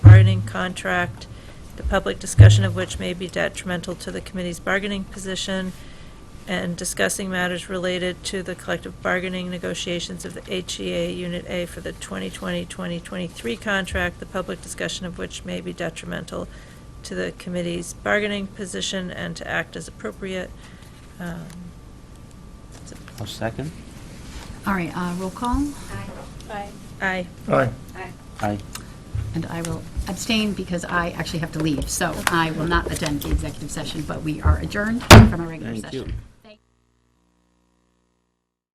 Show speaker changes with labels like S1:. S1: contract, the public discussion of which may be detrimental to the committee's bargaining position, and discussing matters related to the collective bargaining negotiations of the HEA Unit A for the 2020-2023 contract, the public discussion of which may be detrimental to the committee's bargaining position and to act as appropriate. Um, that's it.
S2: I'll second.
S3: All right, uh, roll call,
S4: Aye.
S1: Aye.
S5: Aye.
S4: Aye.
S2: Aye.
S3: and I will abstain because I actually have to leave, so I will not attend the executive session, but we are adjourned from a regular
S2: Thank
S3: session.
S2: you.